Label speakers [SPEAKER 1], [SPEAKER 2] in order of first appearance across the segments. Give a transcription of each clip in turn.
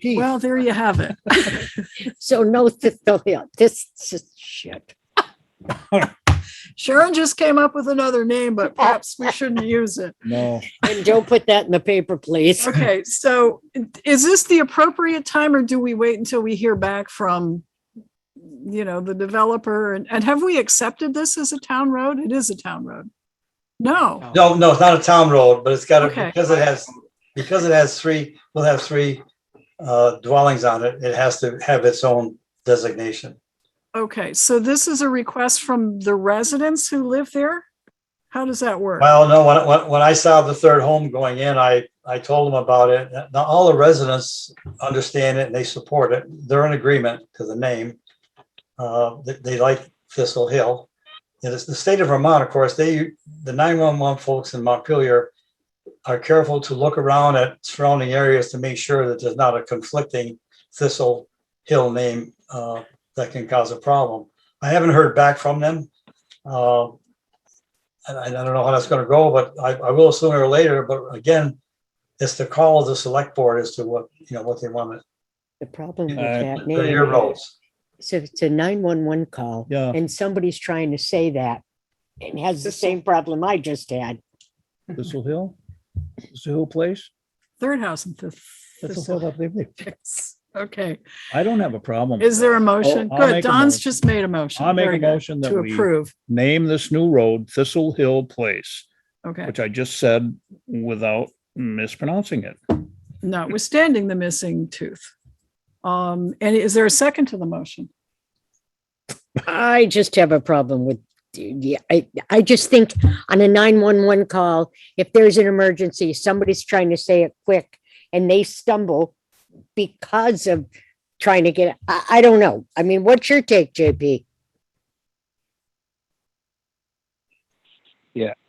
[SPEAKER 1] Gee,
[SPEAKER 2] Well, there you have it.
[SPEAKER 3] So no, th- th- yeah, this is shit.
[SPEAKER 2] Sharon just came up with another name, but perhaps we shouldn't use it.
[SPEAKER 1] No,
[SPEAKER 3] And don't put that in the paper, please.
[SPEAKER 2] Okay, so is this the appropriate time or do we wait until we hear back from, you know, the developer? And, and have we accepted this as a town road? It is a town road. No,
[SPEAKER 4] No, no, it's not a town road, but it's got, a-
[SPEAKER 2] Okay.
[SPEAKER 4] because it has, because it has three, will have three uh, dwellings on it, it has to have its own designation.
[SPEAKER 2] okay, so this is a request from the residents who live there? How does that work?
[SPEAKER 4] Well, no, when, when, when I saw the third home going in, I, I told them about it. Now, all the residents understand it and they support it. They're in agreement to the name. Uh, they, they like Thistle Hill. It is the state of Vermont, of course, they, the nine-one-one folks in Montpelier are careful to look around at surrounding areas to make sure that there's not a conflicting Thistle Hill name, uh, that can cause a problem. I haven't heard back from them. Uh, and I I don't know how that's gonna go, but I, I will sooner or later, but again, it's the call of the select board as to what, you know, what they want,
[SPEAKER 3] The problem with
[SPEAKER 1] Uh,
[SPEAKER 3] that
[SPEAKER 4] to your
[SPEAKER 3] name,
[SPEAKER 4] roles.
[SPEAKER 3] so it's a nine-one-one call.
[SPEAKER 1] Yeah.
[SPEAKER 3] And somebody's trying to say that and has the same problem I just had.
[SPEAKER 1] Thistle Hill, Thistle Hill Place.
[SPEAKER 2] Third house and fifth.
[SPEAKER 1] Thistle Hill, I believe they-
[SPEAKER 2] Yes. Okay,
[SPEAKER 1] I don't have a problem.
[SPEAKER 2] is there a motion?
[SPEAKER 1] I'll
[SPEAKER 2] Good,
[SPEAKER 1] make a
[SPEAKER 2] Don's
[SPEAKER 1] motion.
[SPEAKER 2] just made a motion.
[SPEAKER 1] I'll make
[SPEAKER 2] Very
[SPEAKER 1] a
[SPEAKER 2] good.
[SPEAKER 1] motion that
[SPEAKER 2] To
[SPEAKER 1] we-
[SPEAKER 2] approve,
[SPEAKER 1] Name this new road Thistle Hill Place,
[SPEAKER 2] okay.
[SPEAKER 1] which I just said without mispronouncing it.
[SPEAKER 2] notwithstanding the missing tooth. Um, and is there a second to the motion?
[SPEAKER 3] I just have a problem with, yeah, I, I just think on a nine-one-one call, if there's an emergency, somebody's trying to say it quick and they stumble because of trying to get, I, I don't know. I mean, what's your take, JP?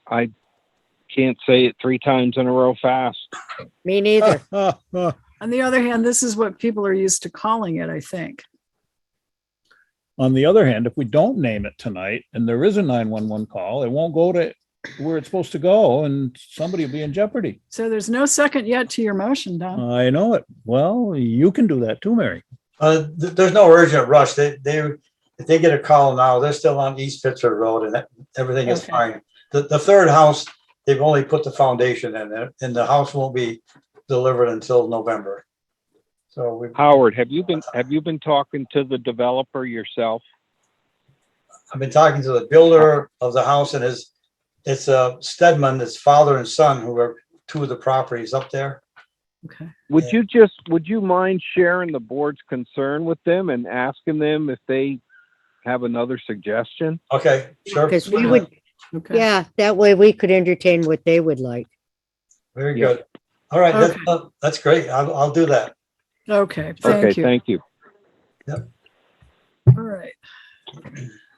[SPEAKER 5] can't say it three times in a row fast.
[SPEAKER 3] Me
[SPEAKER 2] Uh,
[SPEAKER 3] neither.
[SPEAKER 1] On
[SPEAKER 2] On the other hand, this is what people are used to calling it, I think.
[SPEAKER 1] the other hand, if we don't name it tonight and there is a nine-one-one call, it won't go to where it's supposed to go and somebody will be in jeopardy.
[SPEAKER 2] So there's no second yet to your motion,
[SPEAKER 5] Uh,
[SPEAKER 2] Don.
[SPEAKER 1] I know it. Well, you can do that too, Mary.
[SPEAKER 4] Uh, th- there's no urgent rush. They, they, if they get a call now, they're still on East Pittsburgh Road and that- everything is
[SPEAKER 2] Okay.
[SPEAKER 4] fine. The, the third house, they've only put the foundation in there and the house won't be delivered until November. So we,
[SPEAKER 5] Howard, have you been have you been talking to the developer yourself?
[SPEAKER 4] I've been talking to the builder of the house and his, it's uh, Stedman, his father and son, who are two of the properties up there.
[SPEAKER 2] Okay.
[SPEAKER 5] Would
[SPEAKER 4] Yeah.
[SPEAKER 5] you just would you mind sharing the board's concern with them and asking them if they have another suggestion?
[SPEAKER 4] Okay, sure.
[SPEAKER 3] Because we would,
[SPEAKER 2] Okay.
[SPEAKER 3] yeah, that way we could entertain what they would like.
[SPEAKER 4] Very
[SPEAKER 5] Yeah.
[SPEAKER 4] good. All right, that's,
[SPEAKER 2] Okay.
[SPEAKER 4] uh, that's great. I'll, I'll do that.
[SPEAKER 2] Okay,
[SPEAKER 5] okay,
[SPEAKER 2] thank you.
[SPEAKER 5] thank you.
[SPEAKER 2] All right.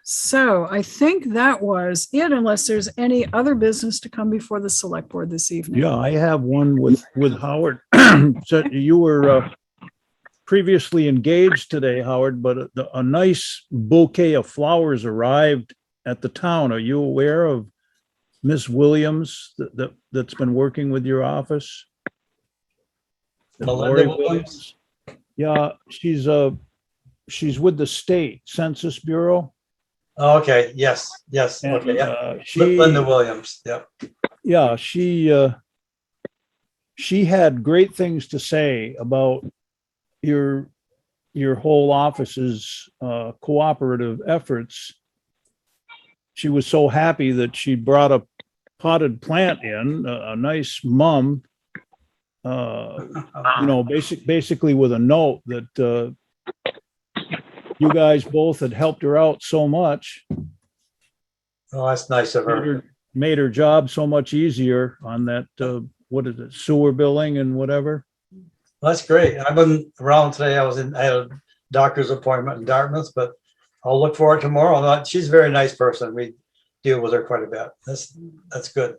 [SPEAKER 2] So I think that was it unless there's any other business to come before the select board this evening.
[SPEAKER 1] Yeah, I have one with, with Howard. So you were uh, previously engaged today, Howard, but a- a nice bouquet of flowers arrived at the town. Are you aware of Miss Williams that, that, that's been working with your office?
[SPEAKER 4] Melinda
[SPEAKER 1] Lori
[SPEAKER 4] Williams?
[SPEAKER 1] Yeah, she's uh she's with the state Census Bureau.
[SPEAKER 4] Okay, yes, yes.
[SPEAKER 1] and,
[SPEAKER 4] Okay, yeah.
[SPEAKER 1] uh, She.
[SPEAKER 4] Linda Williams, yeah.
[SPEAKER 1] yeah, she uh, she had great things to say about your your whole office's uh, cooperative efforts. She was so happy that she brought a potted plant in, a, a nice mum. Uh, you know, basic, basically with a note that uh, you guys both had helped her out so much
[SPEAKER 4] Oh, that's nice of
[SPEAKER 1] made
[SPEAKER 4] her.
[SPEAKER 1] her, made her job so much easier on that, uh, what is it, sewer billing and whatever.
[SPEAKER 4] That's great. I wasn't around today. I was in, I had a doctor's appointment in Dartmouth, but I'll look for it tomorrow. Uh, She's a very nice person. We deal with her quite a bit. That's, that's good.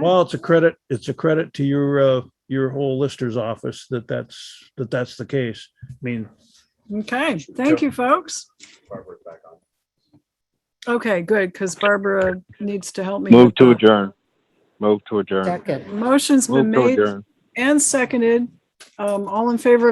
[SPEAKER 1] Well, it's a credit, it's a credit to your, uh, your whole lister's office that that's, that that's the case. I mean,
[SPEAKER 2] Okay, thank you, folks. Okay, good, because Barbara needs to help me.
[SPEAKER 5] Move
[SPEAKER 2] with
[SPEAKER 5] to
[SPEAKER 2] the-
[SPEAKER 5] adjourn. Move to adjourn.
[SPEAKER 3] Second.
[SPEAKER 2] Motion's been
[SPEAKER 5] Move to
[SPEAKER 2] made
[SPEAKER 5] adjourn.
[SPEAKER 2] and seconded. Um, all in favor of